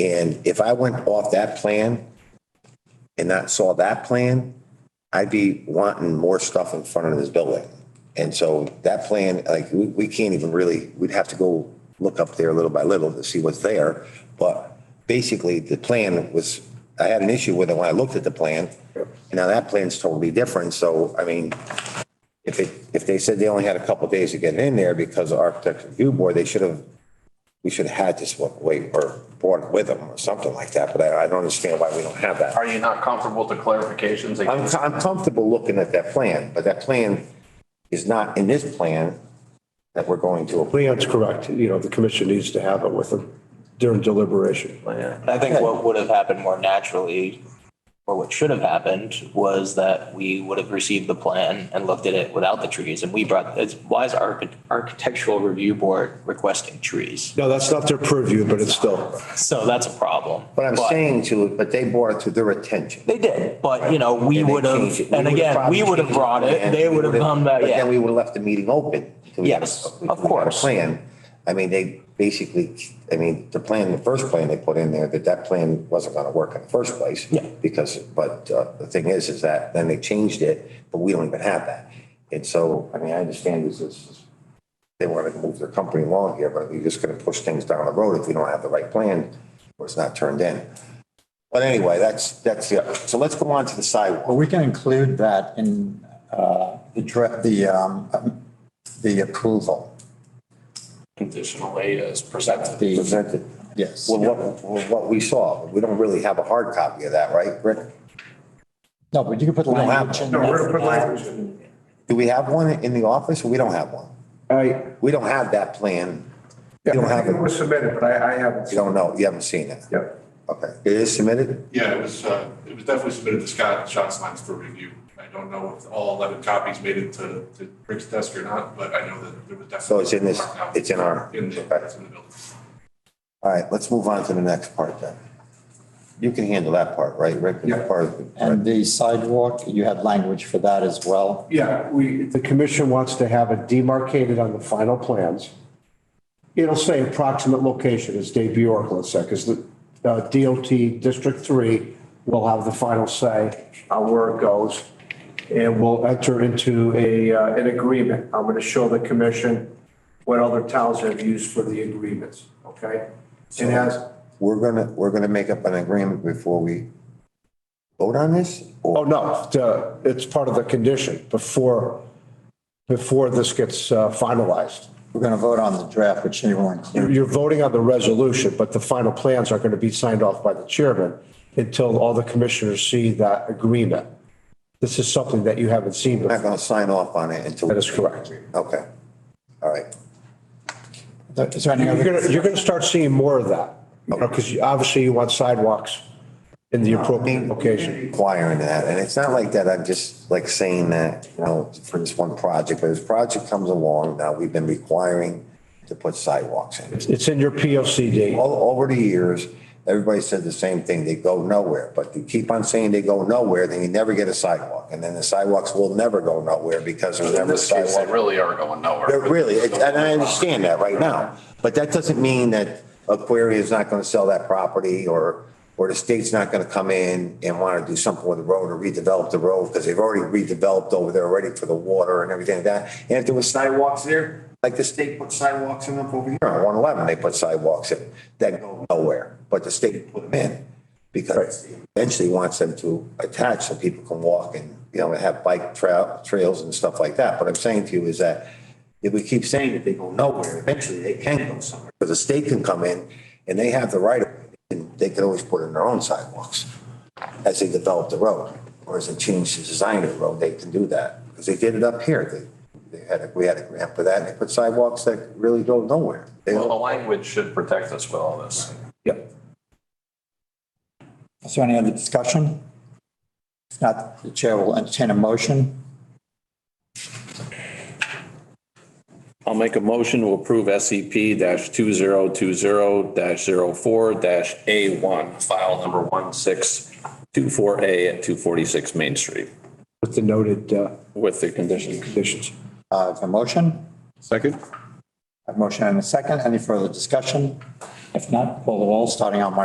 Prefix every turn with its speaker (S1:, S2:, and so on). S1: And if I went off that plan and not saw that plan, I'd be wanting more stuff in front of this building. And so that plan, like, we, we can't even really, we'd have to go look up there little by little to see what's there. But basically, the plan was, I had an issue with it when I looked at the plan. And now that plan's totally different. So, I mean, if it, if they said they only had a couple days to get it in there because of architecture review board, they should have, we should have had this one way or brought it with them or something like that, but I, I don't understand why we don't have that.
S2: Are you not comfortable with the clarifications? they-
S1: I'm, I'm comfortable looking at that plan, but that plan is not in this plan that we're going to approve.
S3: Leon's correct, you know, the commission needs to have it with them during deliberation.
S4: I think what would have happened more naturally, or what should have happened, was that we would have received the plan and looked at it without the trees. And we brought, it's, why is our architectural review board requesting trees?
S3: No, that's not their purview, but it's still,
S4: So that's a problem.
S1: But I'm saying to, but they brought it to their attention.
S4: They did, but you know, we
S1: And they
S4: would have,
S1: changed it.
S4: and
S1: would've
S4: again,
S1: probably
S4: we would have
S1: changed the
S4: brought it,
S1: plan.
S4: they
S1: We
S4: would have
S1: would've-
S4: come back,
S1: But then we
S4: yeah.
S1: would have left the meeting open. till we had a-
S4: Yes,
S1: we
S4: of
S1: had a
S4: course.
S1: Plan. I mean, they basically, I mean, the plan, the first plan they put in there, that that plan wasn't gonna work in the first place.
S4: Yeah.
S1: Because, but uh, the thing is, is that then they changed it, but we don't even have that. And so, I mean, I understand this is, they wanted to move their company along here, but you're just gonna push things down the road if we don't have the right plan or it's not turned in. But anyway, that's, that's, the so let's go on to the sidewalk.
S5: Well, we can include that in uh, the, dra- the, um, um, the approval,
S2: Conditionally as presented.
S5: the,
S1: Presented.
S5: yes.
S1: Well, what, well, what we saw, we don't really have a hard copy of that, right, Rick?
S5: No, but you can put
S1: don't have
S5: language in there.
S1: Do we have one in the office? We don't have one.
S6: I,
S1: We don't have that plan.
S6: yeah,
S1: You don't
S6: I
S1: have
S6: think it
S1: it.
S6: was submitted, but I, I haven't.
S1: You don't know. You haven't seen it.
S6: Yeah.
S1: Okay. It is submitted?
S7: Yeah, it was, uh, it was definitely submitted to Scott Scott's lines for review. I don't know if all 11 copies made it to, to Rick's desk or not, but I know that there was definitely.
S1: So it's in this, it's in our,
S7: In the,
S1: okay.
S7: it's in the building.
S1: All right, let's move on to the next part then. You can handle that part, right, Rick?
S6: Yeah.
S1: Part of it,
S5: And
S1: right?
S5: the sidewalk, you had language for that as well.
S3: yeah, we, the commission wants to have it demarcated on the final plans. It'll say approximate location, as Dave Bjork, let's say, because the uh, DOT District Three will have the final say on where it goes. And we'll enter into a, uh, an agreement. I'm going to show the commission what other towns have used for the agreements, okay? And as,
S1: We're gonna, we're gonna make up an agreement before we vote on this?
S3: Oh,
S1: Or
S3: no, the- it's part of the condition before, before this gets uh, finalized.
S5: We're going to vote on the draft, which you will
S3: You're
S5: include.
S3: you're voting on the resolution, but the final plans aren't going to be signed off by the chairman until all the commissioners see that agreement. This is something that you haven't seen
S1: we're not
S3: before.
S1: gonna sign off on it until?
S3: That is correct.
S1: Okay. All right.
S5: Is there any
S3: You're
S5: other?
S3: going to, you're going to start seeing more of that, because obviously you want sidewalks in the appropriate location.
S1: Requiring that, and it's not like that, I'm just like saying that, you know, for this one project, but as project comes along, now we've been requiring to put sidewalks in.
S3: It's in your P O C D.
S1: All over the years, everybody said the same thing, they go nowhere, but you keep on saying they go nowhere, then you never get a sidewalk, and then the sidewalks will never go nowhere because there's
S2: In
S1: never a
S2: this case, they
S1: sidewalk.
S2: really are going
S1: They're
S2: nowhere.
S1: Really, and I understand that right now, but that doesn't mean that Aquaria is not gonna sell that property or, or the state's not gonna come in and wanna do something with the road or redevelop the road, because they've already redeveloped over there already for the water and everything like that. And if there was sidewalks there, like the state put sidewalks in up over here on one eleven, they put sidewalks in that go nowhere, but the state put them in because eventually wants them to attach so people can walk and, you know, have bike trail, trails and stuff like that. But I'm saying to you is that if we keep saying that they go nowhere, eventually they can go somewhere. But the state can come in and they have the right of, and they can always put in their own sidewalks as they develop the road or as they change the design of the road, they can do that. Because they did it up here. They, they had, a- we had a grant for that and they put sidewalks that really go nowhere. They
S2: Well,
S1: don't-
S2: the language should protect us with all this.
S5: Is there any other discussion? If not, the chair will entertain a motion.
S8: I'll make a motion to approve SCP two zero two zero 4 A one, file number one six two four A at two forty-six Main Street
S3: With the noted uh,
S8: with the condition.
S3: conditions.
S5: Uh, if a motion,
S8: Second?
S5: a motion and a second. Any further discussion? If not, call the roll, starting on my